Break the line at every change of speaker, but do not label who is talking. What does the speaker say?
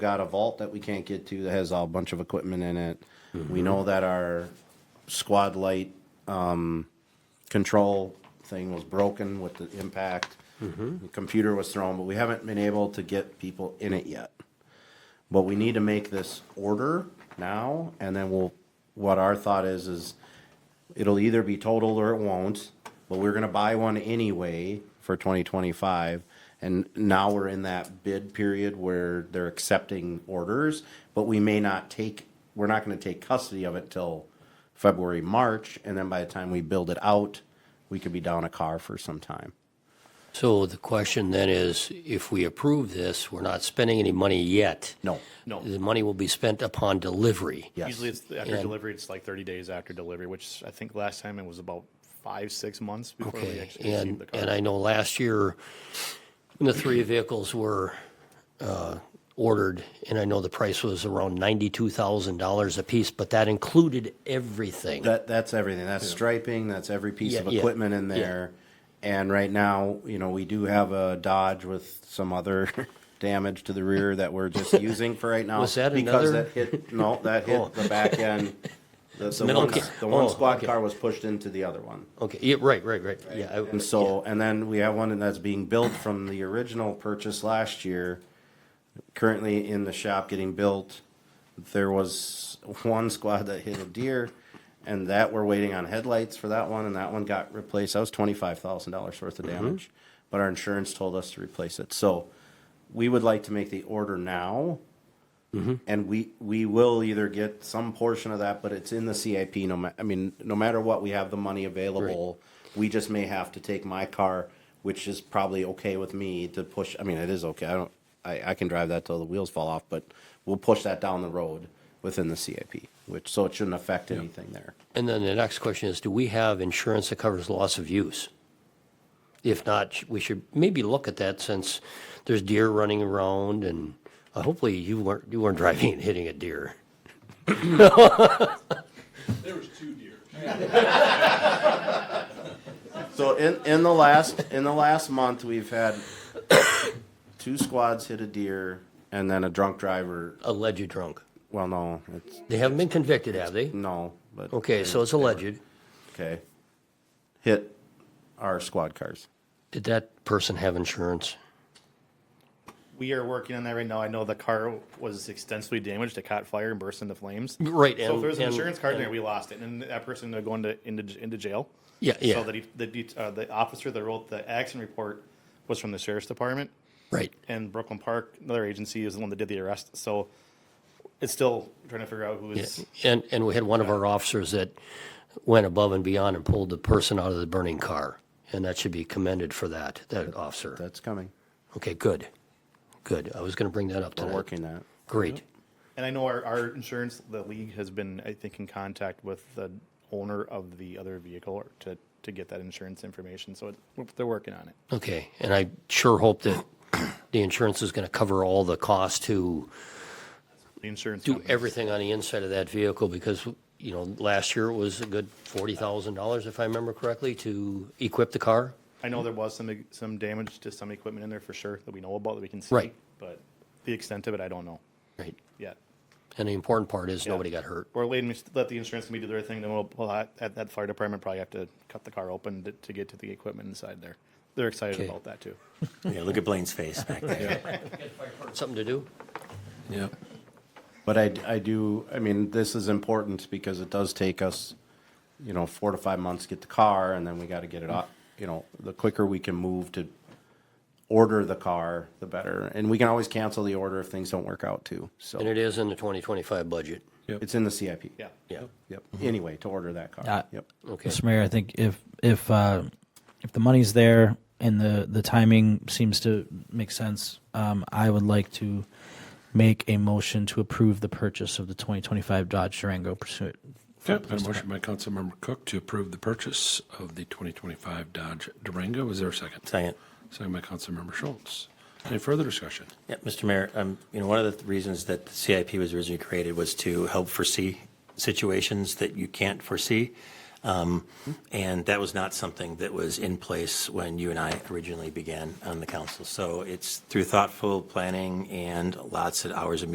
got a vault that we can't get to that has a bunch of equipment in it. We know that our squad light um, control thing was broken with the impact. The computer was thrown, but we haven't been able to get people in it yet. But we need to make this order now, and then we'll. What our thought is is it'll either be totaled or it won't, but we're gonna buy one anyway for twenty twenty-five. And now we're in that bid period where they're accepting orders, but we may not take, we're not gonna take custody of it till February, March, and then by the time we build it out, we could be down a car for some time.
So the question then is, if we approve this, we're not spending any money yet.
No,
No.
The money will be spent upon delivery.
yes.
Usually it's after
And-
delivery, it's like 30 days after delivery, which I think last time it was about five, six months before we
Okay,
actually received
and,
the car.
and I know last year, when the three vehicles were uh, ordered, and I know the price was around $92,000 apiece, but that included everything.
That, that's everything. That's striping, that's every piece
Yeah,
of
yeah,
equipment in there. And right now, you know, we do have a Dodge with some other damage to the rear that we're just using for right now.
Was that
Because
another-
that hit, no, that
Oh.
hit the back end. The, the
middle
one,
ca-
the one
oh,
squad
okay.
car was pushed into the other one.
Okay, yeah, right, right, right, yeah. I-
And so, and then we have one that's being built from the original purchase last year. Currently in the shop getting built. There was one squad that hit a deer and that we're waiting on headlights for that one and that one got replaced. That was twenty-five thousand dollars worth of damage. But our insurance told us to replace it. So we would like to make the order now. And we, we will either get some portion of that, but it's in the CIP, no ma, I mean, no matter what, we have the money available. We just may have to take my car, which is probably okay with me to push, I mean, it is okay, I don't, I, I can drive that till the wheels fall off, but we'll push that down the road within the CIP, which, so it shouldn't affect anything there.
And then the next question is, do we have insurance that covers loss of use? If not, sh- we should maybe look at that since there's deer running around and uh, hopefully you weren't, you weren't driving and hitting a deer.
There was two deer.
So in, in the last, in the last month, we've had two squads hit a deer and then a drunk driver,
Alleged drunk.
well, no, it's,
They haven't been convicted, have they?
no, but.
Okay, so it's alleged.
Okay. Hit our squad cars.
Did that person have insurance?
we are working on that right now. I know the car was extensively damaged. It caught fire and burst into flames.
Right,
So
and-
if there's an
and-
insurance card in there,
and-
we lost it, and that person they're going to into into jail.
Yeah, yeah.
So that he, the det- uh, the officer that wrote the accident report was from the sheriff's department,
Right.
and Brooklyn Park, another agency, is the one that did the arrest. So it's still trying to figure out who
Yeah,
is.
And, and we had one of our officers that went above and beyond and pulled the person out of the burning car. And that should be commended for that, that officer.
That's coming.
Okay, good. Good. I was going to bring that up
We're
tonight.
working that.
Great.
And I know our, our insurance, the league has been, I think, in contact with the owner of the other vehicle to, to get that insurance information. So it, they're working on it.
Okay, and I sure hope that the insurance is going to cover all the cost to
The insurance.
do
company.
everything on the inside of that vehicle because, you know, last year it was a good forty thousand dollars, if I remember correctly, to equip the car.
I know there was some, some damage to some equipment in there for sure that we know about that we can see.
Right.
But the extent of it, I don't know
Right.
yet.
And the important part is nobody got hurt.
Or let, me- let the insurance company do their thing, then we'll, we'll, ha- at that fire department probably have to cut the car open to, to get to the equipment inside there. They're excited
Okay.
about that too.
Yeah, look at Blaine's face back there.
Something to do?
Yep.
But I, I do, I mean, this is important because it does take us, you know, four to five months to get the car and then we gotta get it up. You know, the quicker we can move to order the car, the better. And we can always cancel the order if things don't work out too.
And
So
it is in the twenty twenty-five budget.
it's in the CIP.
Yeah.
Yeah.
Yep. Anyway, to order that car.
Uh,
Yep.
Okay.
Mr. Mayor, I think if if uh, if the money's there and the the timing seems to make sense, um, I would like to make a motion to approve the purchase of the 2025 Dodge Durango pursuit.
Yep, a motion by Councilmember Cook to approve the purchase of the 2025 Dodge Durango. Is there a second?
Second.
Second by Councilmember Schultz. Any further discussion?
Yeah, Mr. Mayor, um, you know, one of the th- reasons that the CIP was originally created was to help foresee situations that you can't foresee. Um, and that was not something that was in place when you and I originally began on the council. So it's through thoughtful planning and lots of hours of